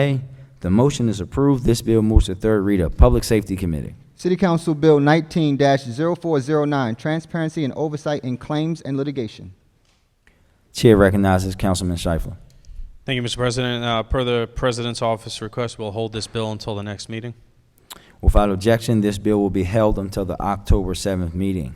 Aye. The motion is approved. This bill moves to third reader. Public Safety Committee. City Council Bill nineteen 409 Transparency and Oversight in Claims and Litigation. Chair recognizes Councilman Schleifer. Thank you, Mr. President. Uh, Per the President's office request, we'll hold this bill until the next meeting. Without objection, this bill will be held until the October 7th meeting.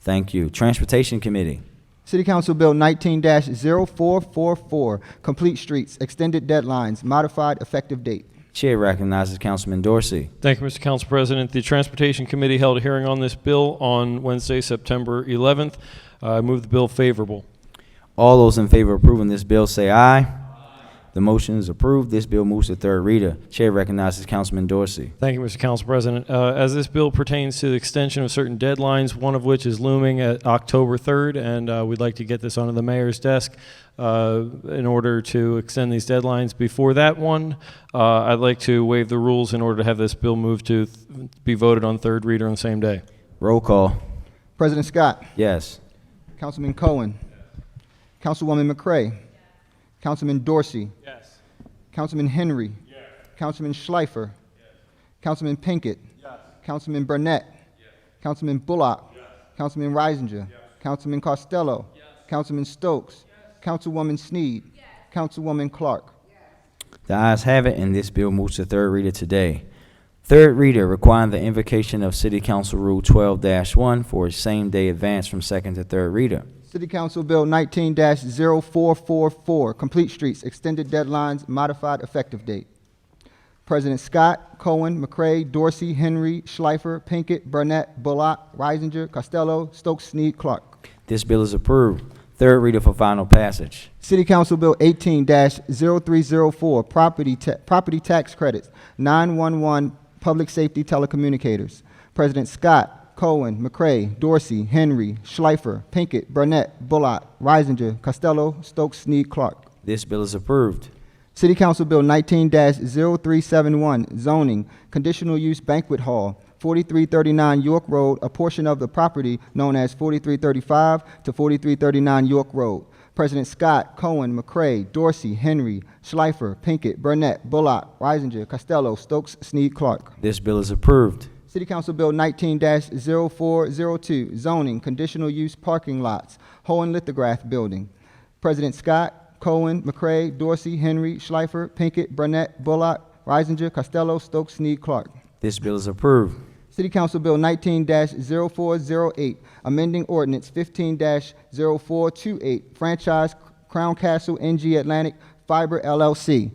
Thank you. Transportation Committee. City Council Bill nineteen 444 Complete Streets, Extended Deadlines, Modified Effective Date. Chair recognizes Councilman Dorsey. Thank you, Mr. Council President. The Transportation Committee held a hearing on this bill on Wednesday, September 11th. I move the bill favorable. All those in favor of approving this bill say aye. The motion is approved. This bill moves to third reader. Chair recognizes Councilman Dorsey. Thank you, Mr. Council President. Uh, As this bill pertains to the extension of certain deadlines, one of which is looming at October 3rd, and uh, we'd like to get this onto the mayor's desk uh, in order to extend these deadlines. Before that one, uh, I'd like to waive the rules in order to have this bill moved to th- be voted on third reader on the same day. Roll call. President Scott, Yes. Councilman Cohen, Councilwoman McCray, Councilman Dorsey, Yes. Councilman Henry, Councilman Schleifer, Councilman Pinkett, Councilman Burnett, Councilman Bullock, Councilman Reisinger, Councilman Costello, Councilman Stokes, Councilwoman Sneed, Councilwoman Clark. The ayes have it, and this bill moves to third reader today. Third reader requiring the invocation of City Council Rule twelve one for a same-day advance from second to third reader. City Council Bill nineteen 444 Complete Streets, Extended Deadlines, Modified Effective Date. President Scott, Cohen, McCray, Dorsey, Henry, Schleifer, Pinkett, Burnett, Bullock, Reisinger, Costello, Stokes, Sneed, Clark. This bill is approved. Third reader for final passage. City Council Bill eighteen 304 property ta- property tax credits, nine-one-one public safety telecommunicators. President Scott, Cohen, McCray, Dorsey, Henry, Schleifer, Pinkett, Burnett, Bullock, Reisinger, Costello, Stokes, Snead, Clark. This bill is approved. City Council Bill nineteen 371 zoning, conditional use banquet hall, forty-three thirty-nine York Road, a portion of the property known as forty-three thirty-five to forty-three thirty-nine York Road. President Scott, Cohen, McCray, Dorsey, Henry, Schleifer, Pinkett, Burnett, Bullock, Reisinger, Costello, Stokes, Snead, Clark. This bill is approved. City Council Bill nineteen 402 zoning, conditional use parking lots, Hohen Lithograph Building. President Scott, Cohen, McCray, Dorsey, Henry, Schleifer, Pinkett, Burnett, Bullock, Reisinger, Costello, Stokes, Snead, Clark. This bill is approved. City Council Bill nineteen 408 amending ordinance fifteen 428 franchise Crown Castle NG Atlantic Fiber LLC.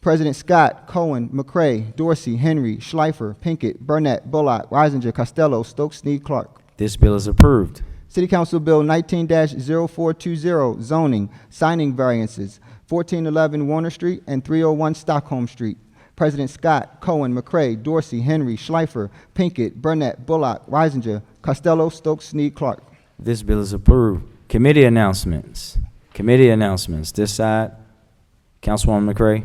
President Scott, Cohen, McCray, Dorsey, Henry, Schleifer, Pinkett, Burnett, Bullock, Reisinger, Costello, Stokes, Snead, Clark. This bill is approved. City Council Bill nineteen 420 zoning, signing variances, fourteen eleven Warner Street and three oh one Stockholm Street. President Scott, Cohen, McCray, Dorsey, Henry, Schleifer, Pinkett, Burnett, Bullock, Reisinger, Costello, Stokes, Snead, Clark. This bill is approved. Committee announcements. Committee announcements. This side, Councilwoman McCray.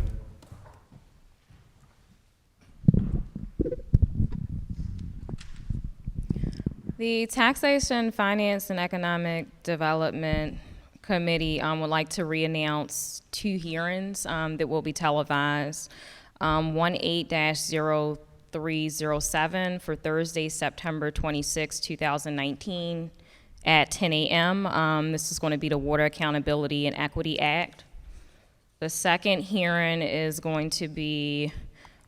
The Taxation, Finance, and Economic Development Committee um, would like to reannounce two hearings um, that will be televised. Um, 18-0307 for Thursday, September 26, 2019, at 10 a.m. Um, This is going to be the Water Accountability and Equity Act. The second hearing is going to be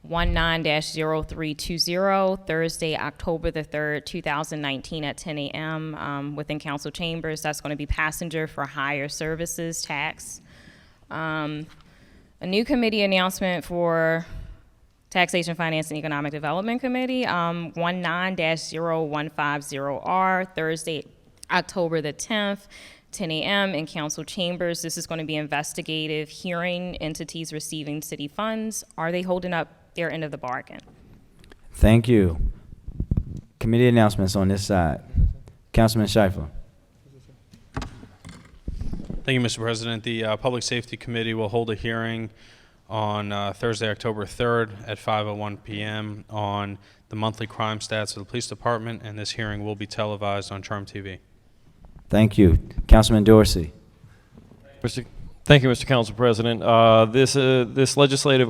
19-0320, Thursday, October the 3rd, 2019, at 10 a.m. um, within council chambers. That's going to be passenger for hire services tax. Um, A new committee announcement for Taxation, Finance, and Economic Development Committee, um, 19-0150R, Thursday, October the 10th, 10 a.m. in council chambers. This is going to be investigative hearing entities receiving city funds. Are they holding up their end of the bargain? Thank you. Committee announcements on this side. Councilman Schleifer. Thank you, Mr. President. The uh, Public Safety Committee will hold a hearing on uh, Thursday, October 3rd at 5:01 PM on the monthly crime stats of the Police Department, and this hearing will be televised on Charm TV. Thank you. Councilman Dorsey. Mr. Thank you, Mr. Council President. Uh, This uh, this legislative